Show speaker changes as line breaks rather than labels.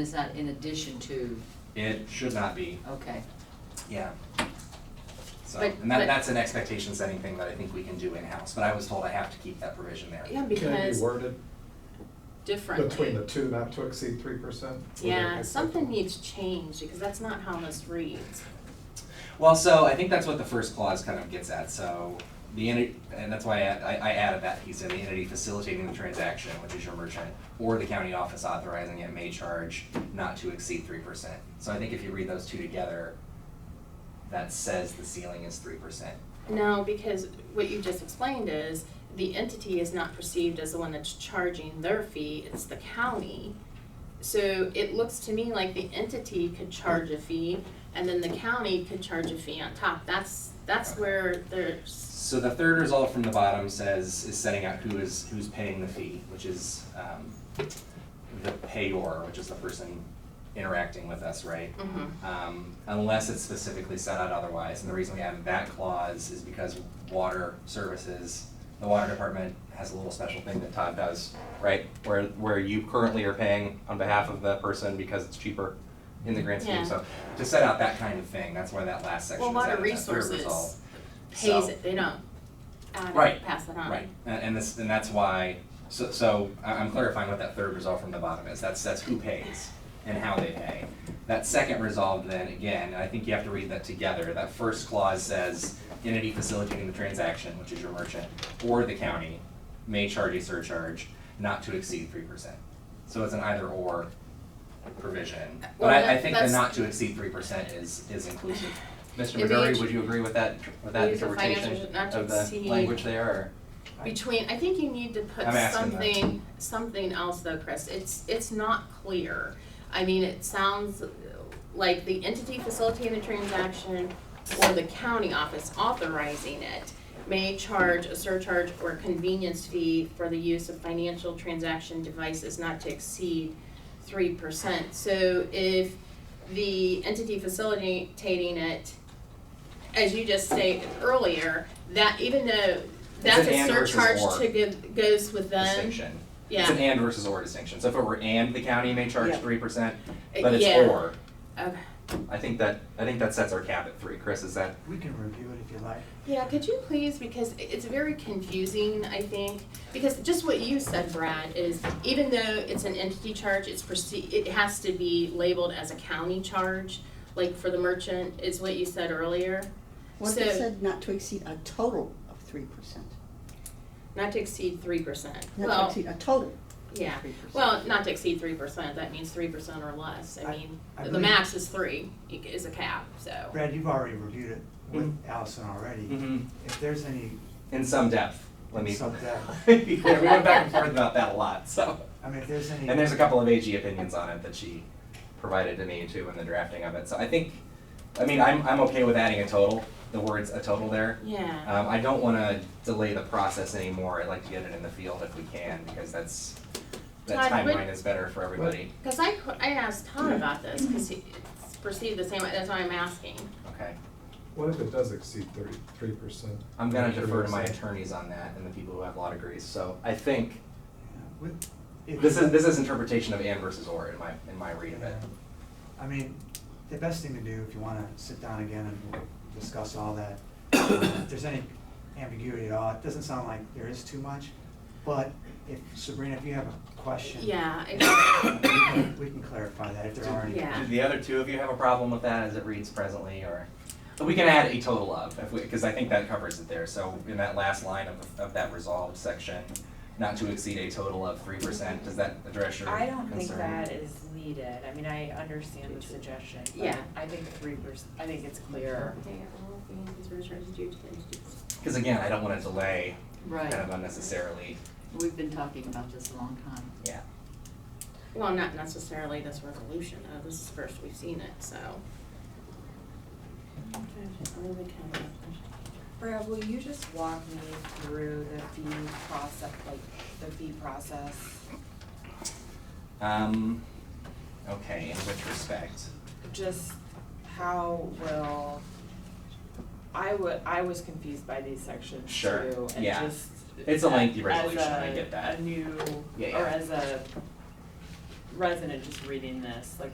It's not in addition to,
It should not be,
okay.
yeah. So,
But-
and that,
but-
that's an expectation setting thing that I think we can do in-house, but I was told I have to keep that provision there.
Yeah,
Can it be
because
worded
differently.
between the two not to exceed three percent?
Yeah, something needs changed because that's not how this reads.
Well, so I think that's what the first clause kind of gets at, so the entity, and that's why I, I I added that piece in, the entity facilitating the transaction, which is your merchant, or the county office authorizing it may charge not to exceed three percent. So I think if you read those two together, that says the ceiling is three percent.
No, because what you just explained is the entity is not perceived as the one that's charging their fee, it's the county. So it looks to me like the entity could charge a fee and then the county could charge a fee on top. That's, that's where there's,
So the third result from the bottom says, is setting out who is, who's paying the fee, which is, um, the payor, which is the person interacting with us, right?
mhm.
Um, unless it's specifically set out otherwise, and the reason we have that clause is because water services, the water department has a little special thing that Todd does, right? Where, where you currently are paying on behalf of the person because it's cheaper in the grand scheme,
Yeah.
so to set out that kind of thing, that's why that last section
Well,
is added,
water
that third result.
resources
So-
pays it, they don't add
Right,
it, pass it on.
Right, and, and this, and that's why, so, so I- I'm clarifying what that third resolve from the bottom is, that's, that's who pays and how they pay. That second resolve then, again, I think you have to read that together, that first clause says, entity facilitating the transaction, which is your merchant, or the county, may charge a surcharge not to exceed three percent. So it's an either or provision, but
Well,
I, I
that-
think the
that's-
not to exceed three percent is, is inclusive. Mr.
It'd be
McGurry,
int-
would you agree with that, with that
Use the financial-
interpretation
not to
of the
exceed-
language there, or?
Between, I think you need to put
I'm asking that.
something, something else though, Chris, it's, it's not clear. I mean, it sounds like the entity facilitating the transaction or the county office authorizing it may charge a surcharge or convenience fee for the use of financial transaction devices not to exceed three percent. So if the entity facilitating it, as you just stated earlier, that even though that's
an
a
and versus
surcharge
or.
to give, goes with them,
distinction.
yeah.
It's an and versus or distinction. So if it were and the county may charge
Yeah.
three percent, but it's
Uh, Yeah.
or.
Okay.
I think that I think that sets our cap at three. Chris, is that
We can review it if you like.
Yeah, could you please, because i- it's very confusing, I think, because just what you said, Brad, is even though it's an entity charge, it's perceived, it has to be labeled as a county charge, like for the merchant, is what you said earlier.
What
So-
if it said not to exceed a total of three percent?
Not to exceed three percent.
Not to
Well,
exceed a total
yeah,
of three percent.
well, not to exceed three percent, that means three percent or less, I
I-
mean,
I
the
believe-
max is three, i- is a cap, so.
Brad, you've already reviewed it with
Mm-hmm.
Allison already. If there's any,
in some depth? Let me.
In some depth.
yeah, we went back and forth about that a lot. So,
I mean, if there's any.
and there's a couple of AG opinions on it that she provided to me too in the drafting of it. So I think, I mean, I'm I'm okay with adding a total. The words a total there.
Yeah,
Um, I don't want to delay the process anymore. I'd like to get it in the field if we can, because that's, that
Todd, what-
timeline is better for everybody.
cause I, qu- I asked Todd about this, cause he, it's perceived the same way, that's why I'm asking.
Okay.
What if it does exceed thirty, three percent?
I'm gonna defer to my attorneys on that and the people who have law degrees, so I think,
Yeah, with- if-
this is, this is interpretation of and versus or in my, in my read of it.
Yeah. I mean, the best thing to do if you wanna sit down again and we'll discuss all that, if there's any ambiguity at all, it doesn't sound like there is too much, but if, Sabrina, if you have a question.
Yeah, I-
We can we can clarify that if there are any.
Yeah.
Do the other two of you have a problem with that as it reads presently, or? We can add a total of, if we, because I think that covers it there, so in that last line of, of that resolved section, not to exceed a total of three percent, does that address your concern?
I don't think that is needed, I mean, I understand the suggestion, but
Yeah.
I think three percent, I think it's clear.
Because again, I don't want to delay kind
Right,
of unnecessarily.
we've been talking about this a long time.
Yeah.
Well, not necessarily this resolution, though, this is the first we've seen it, so.
Brad, will you just walk me through the fee process, like, the fee process?
Um, okay, in which respect?
Just how will, I wa- I was confused by these sections too,
Sure,
and just.
yeah. It's a lengthy resolution, I
as a-
get that.
a new,
Yeah,
or
yeah.
as a resident just reading this, like